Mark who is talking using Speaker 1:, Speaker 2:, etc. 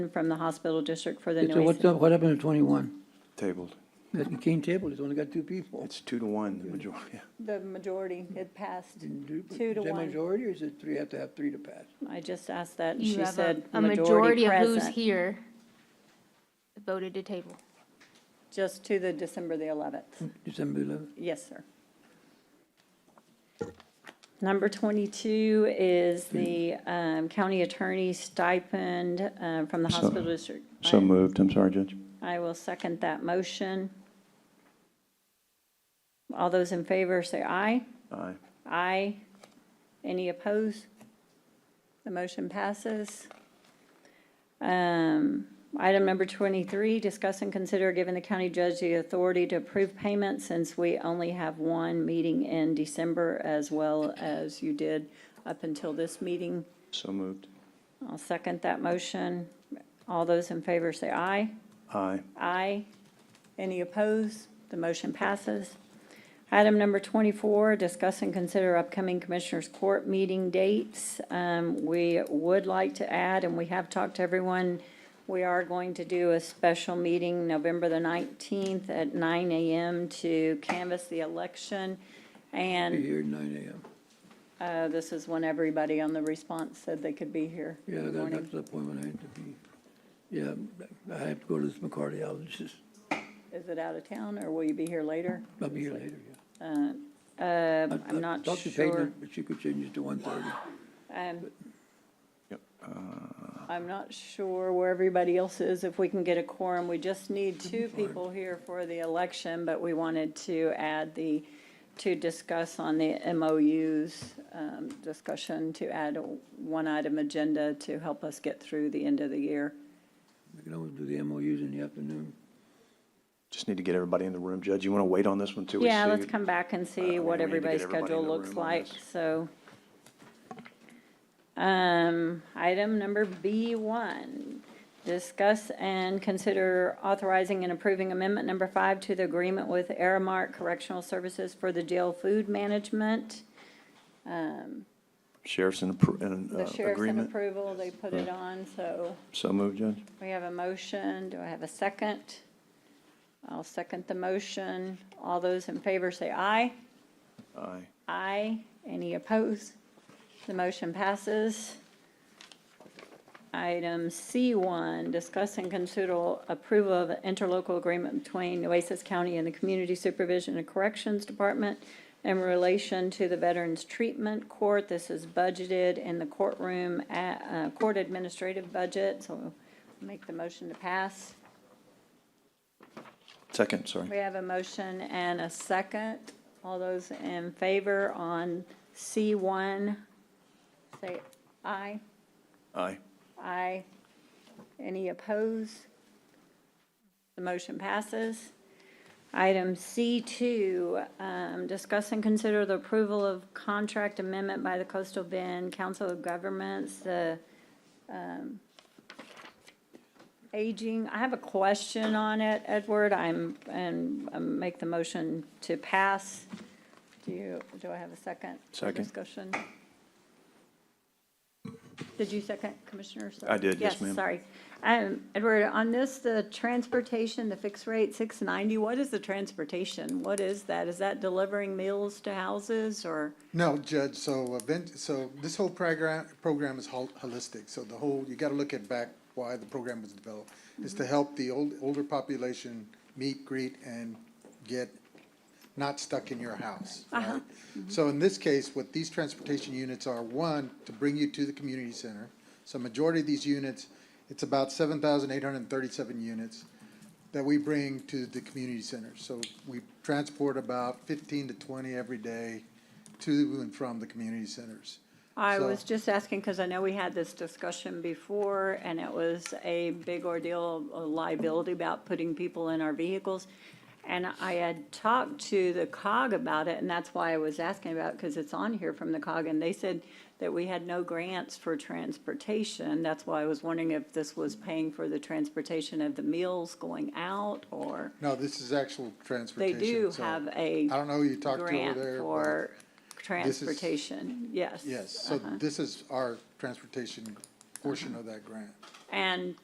Speaker 1: from the hospital district for the
Speaker 2: So
Speaker 1: noise.
Speaker 2: what's up, what happened to twenty-one?
Speaker 3: Tabled.
Speaker 2: That cane table, it's only got two people.
Speaker 3: It's two to one, the majority.
Speaker 1: The majority, it passed
Speaker 2: Didn't do-
Speaker 1: two to
Speaker 2: Is that
Speaker 1: one.
Speaker 2: majority, or is it three, have to have three to pass?
Speaker 1: I just asked that, and
Speaker 4: You
Speaker 1: she
Speaker 4: have a,
Speaker 1: said
Speaker 4: a majority
Speaker 1: majority
Speaker 4: of who's
Speaker 1: present,
Speaker 4: here voted to table.
Speaker 1: just to the December the 11th.
Speaker 2: December eleventh?
Speaker 1: Yes, sir. Number 22 is the um, county attorney stipend um, from the
Speaker 3: So-
Speaker 1: hospital district.
Speaker 3: So moved. I'm sorry, Judge.
Speaker 1: I will second that motion. All those in favor say aye.
Speaker 3: Aye.
Speaker 1: Aye. Any opposed? The motion passes. Um, Item number 23, discuss and consider giving the county judge the authority to approve payment since we only have one meeting in December as well as you did up until this meeting.
Speaker 3: So moved.
Speaker 1: I'll second that motion. All those in favor say aye.
Speaker 3: Aye.
Speaker 1: Aye. Any opposed? The motion passes. Item number 24, discuss and consider upcoming Commissioners Court meeting dates. Um, We would like to add, and we have talked to everyone, we are going to do a special meeting November the 19th at 9 a.m. to canvass the election. And
Speaker 2: Here at nine AM.
Speaker 1: uh, this is when everybody on the response said they could be here
Speaker 2: Yeah,
Speaker 1: in the
Speaker 2: that-
Speaker 1: morning.
Speaker 2: that's the appointment I had to be. Yeah, I have to go to this cardiologist.
Speaker 1: Is it out of town, or will you be here later?
Speaker 2: I'll be here later, yeah.
Speaker 1: Uh,
Speaker 2: I- I
Speaker 1: I'm not
Speaker 2: talked to Peyton,
Speaker 1: sure.
Speaker 2: But she could change it to one thirty.
Speaker 1: Um,
Speaker 3: Yep.
Speaker 1: I'm not sure where everybody else is, if we can get a quorum. We just need two people here for the election, but we wanted to add the, to discuss on the MOUs, um, discussion to add a one item agenda to help us get through the end of the year.
Speaker 2: We can always do the MOUs in the afternoon.
Speaker 3: Just need to get everybody in the room. Judge, you want to wait on this one till we see?
Speaker 1: Yeah, let's come back and
Speaker 3: I
Speaker 1: see
Speaker 3: mean, we need
Speaker 1: what
Speaker 3: to
Speaker 1: everybody's
Speaker 3: get everybody in
Speaker 1: schedule
Speaker 3: the
Speaker 1: looks
Speaker 3: room on
Speaker 1: like,
Speaker 3: this.
Speaker 1: so. Um, item number B one, discuss and consider authorizing and approving amendment number five to the agreement with Aramark Correctional Services for the jail food management.
Speaker 3: Sheriff's in appro- in, uh,
Speaker 1: The sheriff's in
Speaker 3: agreement.
Speaker 1: approval, they put it on, so
Speaker 3: So moved, Judge.
Speaker 1: we have a motion, do I have a second? I'll second the motion, all those in favor say aye.
Speaker 3: Aye.
Speaker 1: Aye. Any opposed? The motion passes. Item C1, discuss and consider approval of interlocal agreement between Oasis County and the Community Supervision and Corrections Department in relation to the Veterans Treatment Court. This is budgeted in the courtroom, at, uh, court administrative budget, so make the motion to pass.
Speaker 3: Second, sorry.
Speaker 1: We have a motion and a second. All those in favor on C1, say aye.
Speaker 3: Aye.
Speaker 1: Aye. Any opposed? The motion passes. Item C2, um, discuss and consider the approval of contract amendment by the Coastal Bend Council of Governments, the um, aging, I have a question on it, Edward, I'm, and um, make the motion to pass. Do you, do I have a second? for
Speaker 3: Second.
Speaker 1: Discussion. Did you second, Commissioner?
Speaker 3: I did, yes, ma'am.
Speaker 1: Sorry. Um, Edward, on this, the transportation, the fixed rate, six ninety, what is the transportation? What is that? Is that delivering meals to houses or?
Speaker 5: No, Judge, so event, so this whole program, program is hol- holistic, so the whole, you gotta look at back why the program was developed. Is to help the old, older population meet, greet, and get not stuck in your house, right? So in this case, what these transportation units are, one, to bring you to the community center. So majority of these units, it's about seven thousand eight hundred and thirty-seven units that we bring to the community center. So we transport about fifteen to twenty every day to and from the community centers.
Speaker 1: I
Speaker 5: So-
Speaker 1: was just asking because I know we had this discussion before and it was a big ordeal, a liability about putting people in our vehicles. And I had talked to the COG about it and that's why I was asking about, because it's on here from the COG. And they said that we had no grants for transportation. That's why I was wondering if this was paying for the transportation of the meals going out or
Speaker 5: No, this is actual
Speaker 1: they
Speaker 5: transportation.
Speaker 1: do
Speaker 5: so
Speaker 1: have a
Speaker 5: I don't know who you talked to over
Speaker 1: grant
Speaker 5: there. but-
Speaker 1: for
Speaker 5: is-
Speaker 1: transportation, yes. uh-huh.
Speaker 5: Yes, so this is our transportation portion of that grant.
Speaker 1: And